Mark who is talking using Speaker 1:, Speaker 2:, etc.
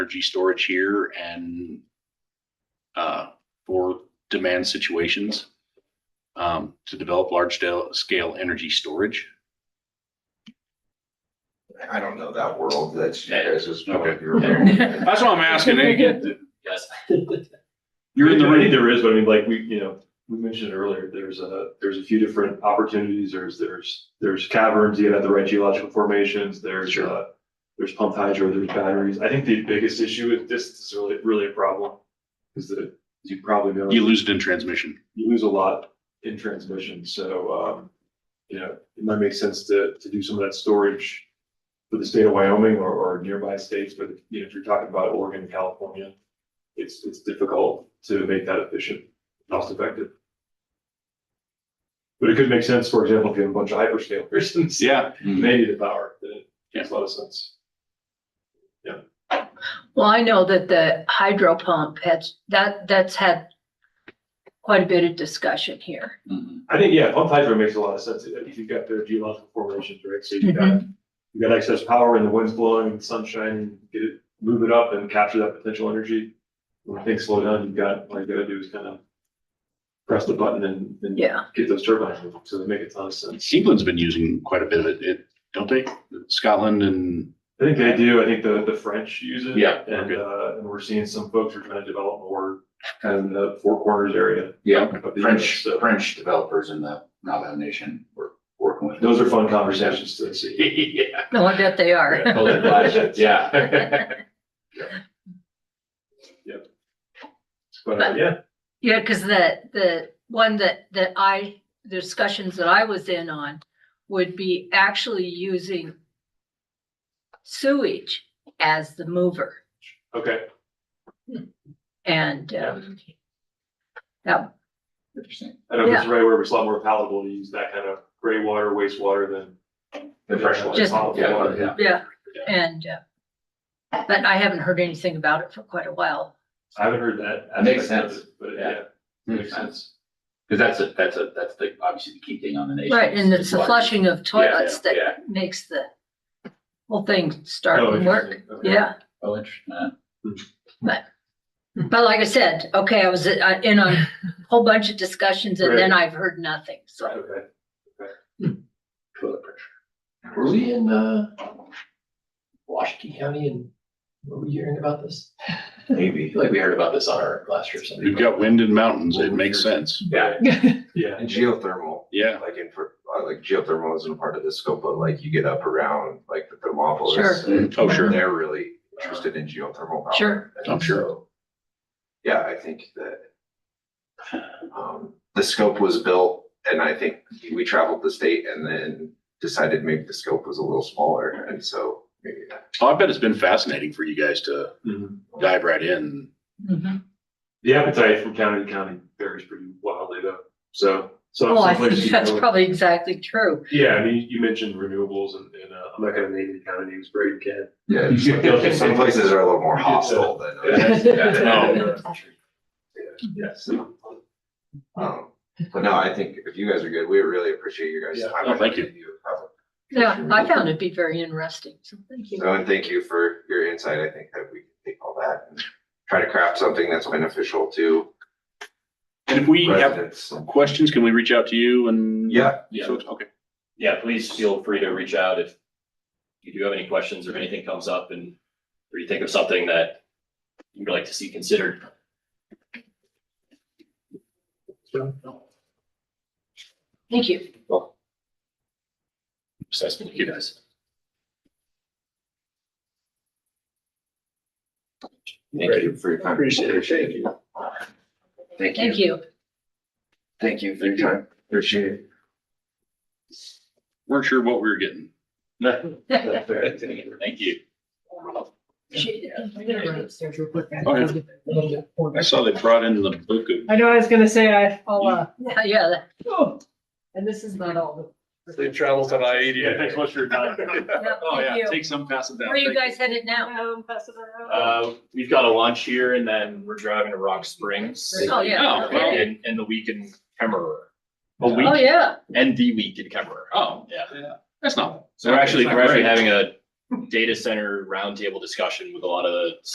Speaker 1: energy storage here and uh, for demand situations um, to develop large scale, scale energy storage.
Speaker 2: I don't know that world, that's,
Speaker 1: Yeah.
Speaker 2: that's just. one of
Speaker 1: Okay.
Speaker 2: your-
Speaker 1: That's what I'm asking. eh? Get-
Speaker 3: Yes.
Speaker 1: You're in the
Speaker 4: I think
Speaker 1: room.
Speaker 4: There is, but I mean, like, we, you know, we mentioned earlier, there's a, there's a few different opportunities, there's, there's, there's caverns, you have the right geological formations, there's,
Speaker 1: Sure.
Speaker 4: uh, there's pumped hydro, there's batteries, I think the biggest issue with this is really, really a problem, is that, as you probably know,
Speaker 1: You lose it in transmission.
Speaker 4: you lose a lot in transmission, so, um, you know, it might make sense to, to do some of that storage for the state of Wyoming or, or nearby states, but, you know, if you're talking about Oregon, California, it's, it's difficult to make that efficient, cost effective. But it could make sense, for example, if you have a bunch of hyperscalers and
Speaker 1: Yeah.
Speaker 4: maybe the power, then it makes a lot of sense.
Speaker 5: Well, I know that the hydro pump has, that, that's had quite a bit of discussion here.
Speaker 4: I think, yeah, pumped hydro makes a lot of sense, if you've got their geological formations, right, so you've got, you've got excess power and the wind's blowing, the sun's shining, get it, move it up and capture that potential energy. When things slow down, you've got, all you gotta do is kind of press the button and, and
Speaker 5: Yeah,
Speaker 4: get those turbines moving, so they make a ton of sense.
Speaker 1: England's been using quite a bit of it, it- don't they? Scotland and,
Speaker 4: I think they do, I think the, the French use it.
Speaker 3: Yeah,
Speaker 4: And,
Speaker 1: okay.
Speaker 4: uh, and we're seeing some folks are trying to develop more kind of in the Four Corners area.
Speaker 1: Yeah,
Speaker 4: of the US,
Speaker 2: French,
Speaker 4: so
Speaker 2: French developers in the Navajo Nation were working with.
Speaker 4: Those are fun conversations to see.
Speaker 3: Yeah.
Speaker 5: no, I bet they are.
Speaker 3: Yeah, totally flash, Yeah.
Speaker 4: But, uh, yeah,
Speaker 5: Yeah, because the, the one that, that I, the discussions that I was in on would be actually using sewage as the mover
Speaker 4: okay,
Speaker 5: and,
Speaker 4: Yeah.
Speaker 5: um, that,
Speaker 2: Interesting.
Speaker 4: I know this is right where it's a lot more palatable to use that kind of gray water, wastewater than
Speaker 2: The fresh ones.
Speaker 5: Just-
Speaker 4: Potable
Speaker 2: Yeah,
Speaker 4: water.
Speaker 2: yeah.
Speaker 5: yeah, and, uh, but I haven't heard anything about it for quite a while.
Speaker 4: I haven't heard that.
Speaker 3: That makes
Speaker 4: aspect of
Speaker 3: sense.
Speaker 4: it, But
Speaker 3: Yeah.
Speaker 4: yeah,
Speaker 3: Makes sense. Cause that's a, that's a, that's the, obviously the key thing on the nation.
Speaker 5: Right, and it's the flushing of toilets
Speaker 3: Yeah,
Speaker 5: that
Speaker 3: yeah.
Speaker 5: makes the whole thing
Speaker 4: Oh,
Speaker 5: start and work,
Speaker 4: interesting. Okay.
Speaker 5: yeah.
Speaker 3: Oh, interesting. Uh,
Speaker 5: But like I said, okay, I was uh, in on a whole bunch of discussions and then I've heard nothing, so.
Speaker 4: Okay.
Speaker 3: Toilet pressure.
Speaker 6: Were we in, uh, Washington County and were we hearing about this? I
Speaker 2: Maybe.
Speaker 6: feel like we heard about this on our last year or something.
Speaker 1: you've got wind and mountains, it makes sense.
Speaker 3: Yeah.
Speaker 4: Yeah.
Speaker 2: And geothermal,
Speaker 1: Yeah,
Speaker 2: like in, for- uh, like geothermal isn't part of the scope, but like you get up around like the Thermopolis.
Speaker 5: Sure.
Speaker 2: and
Speaker 1: Oh, sure.
Speaker 2: They're really interested in geothermal power.
Speaker 5: Sure.
Speaker 2: And
Speaker 1: I'm sure.
Speaker 2: so, Yeah, I think that um, the scope was built and I think we traveled the state and then decided maybe the scope was a little smaller. And so maybe that.
Speaker 1: Oh, I bet it's been fascinating for you guys to
Speaker 3: Mm-hmm.
Speaker 4: Mhm.
Speaker 1: dive right in.
Speaker 5: Mhm.
Speaker 4: The appetite from county to county varies pretty wildly though, so. so
Speaker 5: Oh, I
Speaker 4: some places
Speaker 5: think
Speaker 4: you
Speaker 5: that's
Speaker 4: go-
Speaker 5: probably exactly true.
Speaker 4: Yeah, I mean, you mentioned renewables and, and, uh, I'm not gonna name any county names, but you can.
Speaker 2: Yeah, it's like- some places are a little more hostile than others.
Speaker 3: Oh.
Speaker 4: Yeah.
Speaker 2: Yes. Um, But no, I think if you guys are good, we really appreciate your guys'
Speaker 4: Yeah.
Speaker 2: time.
Speaker 1: No, thank you.
Speaker 2: Have a-
Speaker 5: Yeah, I found it to be very interesting, so thank you.
Speaker 2: So, and thank you for your insight. I think that we can take all that and try to craft something that's beneficial to
Speaker 1: And if we have
Speaker 2: residents.
Speaker 1: questions, can we reach out to you and?
Speaker 2: Yeah,
Speaker 3: Yeah.
Speaker 1: So, it's- okay.
Speaker 3: Yeah, please feel free to reach out if you do have any questions or anything comes up and, or you think of something that you'd like to see considered.
Speaker 5: Thank you.
Speaker 3: Assessment, you guys.
Speaker 2: thank you for your time. Appreciate it. Thank you. Thank
Speaker 5: Thank you.
Speaker 2: Thank you for your time. Appreciate it.
Speaker 1: Weren't sure what we were getting.
Speaker 3: Thank you.
Speaker 5: Appreciate it. I'm gonna run upstairs real quick.
Speaker 1: Go ahead. I saw they brought in the book of
Speaker 7: I know, I was gonna say, I, I'll, uh,
Speaker 5: Yeah, Yeah, that-
Speaker 7: oh, and this is not all the
Speaker 8: They traveled on I eighty.
Speaker 4: Yeah, thanks much for your time.
Speaker 5: yeah,
Speaker 1: Oh, yeah,
Speaker 5: thank you.
Speaker 1: take some, pass it down.
Speaker 5: Where are you
Speaker 1: Thank
Speaker 5: guys headed now?
Speaker 7: Um, pass it around.
Speaker 3: Uh, we've got a lunch here and then we're driving to Rock Springs.
Speaker 5: Oh, yeah.
Speaker 1: Oh, well.
Speaker 3: And, and the week in Kemmerer. A
Speaker 1: Oh,
Speaker 5: Oh,
Speaker 3: week
Speaker 5: yeah.
Speaker 3: and the week in Kemmerer.
Speaker 1: Oh,
Speaker 3: Yeah.
Speaker 1: that's not.
Speaker 3: So we're actually,
Speaker 1: that's
Speaker 3: we're
Speaker 1: not
Speaker 3: actually
Speaker 1: great.
Speaker 3: having a data center roundtable discussion with a lot of